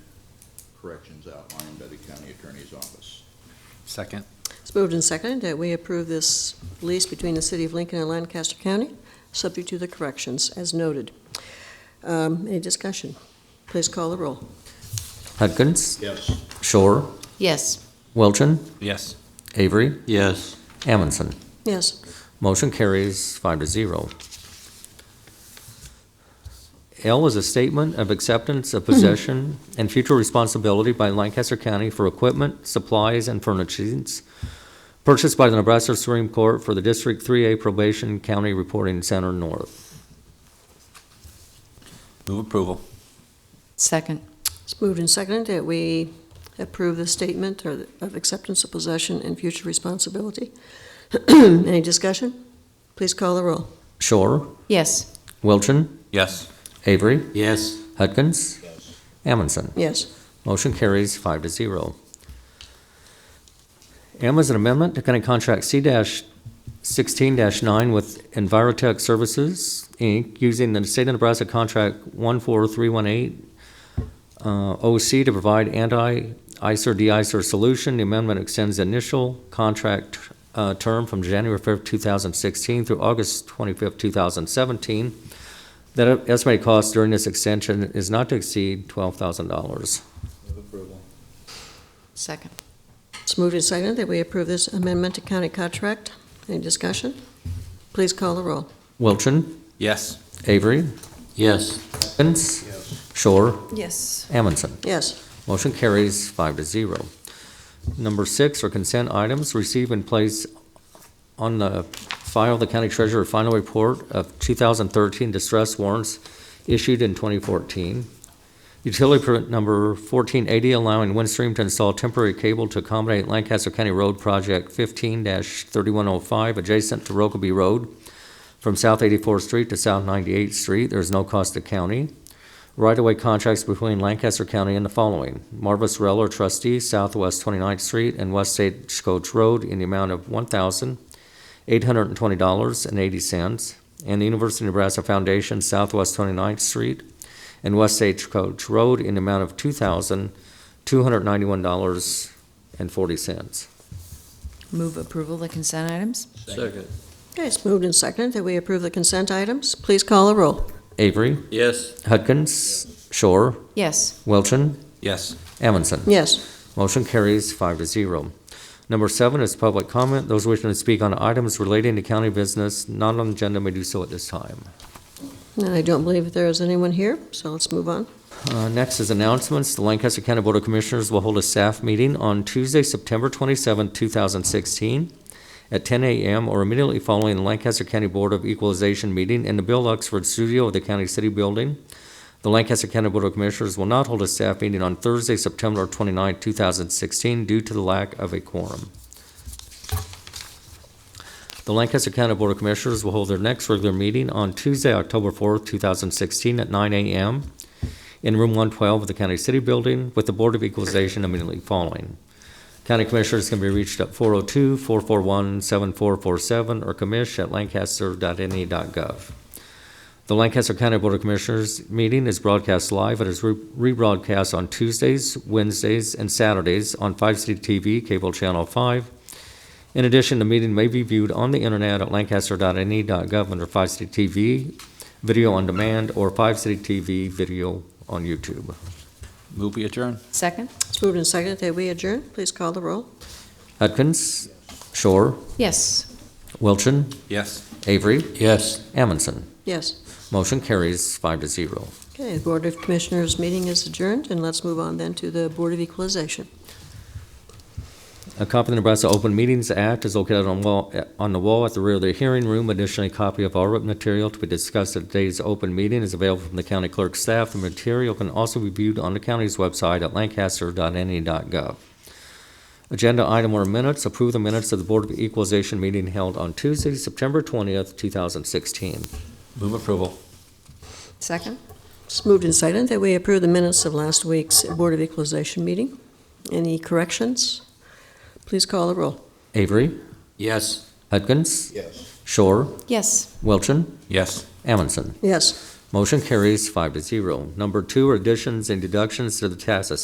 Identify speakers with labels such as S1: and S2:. S1: corrections outlined by the county attorney's office.
S2: Second.
S3: It's moved and seconded that we approve this lease between the City of Lincoln and Lancaster County, subject to the corrections as noted. Um, Any discussion? Please call the roll.
S4: Hudgens,
S1: Yes.
S4: Shore,
S5: Yes.
S4: Wilchin,
S2: Yes.
S4: Avery,
S6: yes,
S4: Amundson.
S3: Yes,
S4: Motion carries five to zero. L is a statement of acceptance of possession and future responsibility by Lancaster County for equipment, supplies, and furnishings purchased by the Nebraska Supreme Court for the District 3A Probation County Reporting Center North.
S2: Move approval.
S5: Second.
S3: it's moved and seconded that we approve the statement or of acceptance of possession and future responsibility. Any discussion? Please call the roll.
S4: Shore,
S5: Yes.
S4: Wilchin,
S2: Yes.
S4: Avery,
S6: yes,
S4: Hudgens,
S1: Yes.
S4: Amundson.
S3: Yes,
S4: Motion carries five to zero. M is an amendment to County Contract C sixteen nine with Envirotech Services, Inc., using the State of Nebraska Contract one four three one eight OC to provide anti-ICER de-ICER solution. The amendment extends the initial contract uh, term from January fifth, two thousand sixteen through August twenty-fifth, two thousand seventeen. The estimated cost during this extension is not to exceed twelve thousand dollars.
S1: Move approval.
S5: Second.
S3: it's moved and seconded that we approve this amendment to county contract. Any discussion? Please call the roll.
S4: Wilchin,
S2: Yes.
S4: Avery,
S6: yes.
S4: Evans,
S1: Yes.
S4: Shore,
S5: Yes.
S4: Amundson.
S3: Yes,
S4: Motion carries five to zero. Number six are consent items. Receive and place on the file the county treasurer final report of 2013 distress warrants issued in 2014. Utility permit number 1480 allowing Windstream to install temporary cable to accommodate Lancaster County Road Project 15-3105 adjacent to Rokeby Road from South 84th Street to South 98th Street. There is no cost to county right-of-way contracts between Lancaster County and the following: Marvis Reller trustee, Southwest 29th Street and West Stagecoach Road in the amount of $1,820.80, and the University of Nebraska Foundation, Southwest 29th Street and West Stagecoach Road in the amount of $2,291.40.
S5: Move approval of the consent items?
S6: Second.
S3: okay, it's moved and seconded that we approve the consent items. Please call the roll.
S4: Avery,
S6: Yes,
S4: Hudgens, Shore,
S5: Yes.
S4: Wilchin,
S2: Yes.
S4: Amundson.
S3: Yes.
S4: Motion carries five to zero. Number seven is public comment. Those wishing to speak on items relating to county business not on the agenda may do so at this time.
S3: And I don't believe there is anyone here, so let's move on.
S4: Uh, Next is announcements. The Lancaster County Board of Commissioners will hold a staff meeting on Tuesday, September 27, 2016, at 10 a.m. or immediately following the Lancaster County Board of Equalization meeting in the Bill Oxford Studio of the County City Building. The Lancaster County Board of Commissioners will not hold a staff meeting on Thursday, September 29, 2016, due to the lack of a quorum. The Lancaster County Board of Commissioners will hold their next regular meeting on Tuesday, October 4, 2016, at 9 a.m in room 112 of the County City Building with the Board of Equalization immediately following. County Commissioners can be reached at 402-441-7447 or commish@lancaster.ne.gov. E The Lancaster County Board of Commissioners meeting is broadcast live and is re- rebroadcast on Tuesdays, Wednesdays, and Saturdays on 5 City TV, Cable Channel 5. In addition, the meeting may be viewed on the internet at lancaster.ne.gov E under 5 City TV, Video on Demand, or 5 City TV, Video on YouTube.
S2: Move we adjourn.
S5: Second?
S3: It's moved and seconded that we adjourn. Please call the roll.
S4: Hudgens, Shore,
S5: Yes.
S4: Wilchin,
S2: Yes.
S4: Avery,
S6: yes.
S4: Amundson.
S3: Yes.
S4: Motion carries five to zero.
S3: Okay, the Board of Commissioners meeting is adjourned, and let's move on then to the Board of Equalization.
S4: A copy of the Nebraska Open Meetings Act is located on wall, on the wall at the rear of the hearing room. Additionally, a copy of all written material to be discussed at today's open meeting is available from the county clerk's staff. The material can also be viewed on the county's website at lancaster.ne.gov. E Agenda item or minutes, approve the minutes of the Board of Equalization meeting held on Tuesday, September twentieth, two thousand sixteen.
S2: Move approval.
S5: Second?
S3: It's moved and seconded that we approve the minutes of last week's Board of Equalization meeting. Any corrections? Please call the roll.
S4: Avery,
S6: Yes.
S4: Hudgens,
S1: Yes.
S4: Shore,
S5: Yes.
S4: Wilchin,
S2: Yes.
S4: Amundson.
S3: Yes.
S4: Motion carries five to zero. Number two, additions and deductions to the tax assessment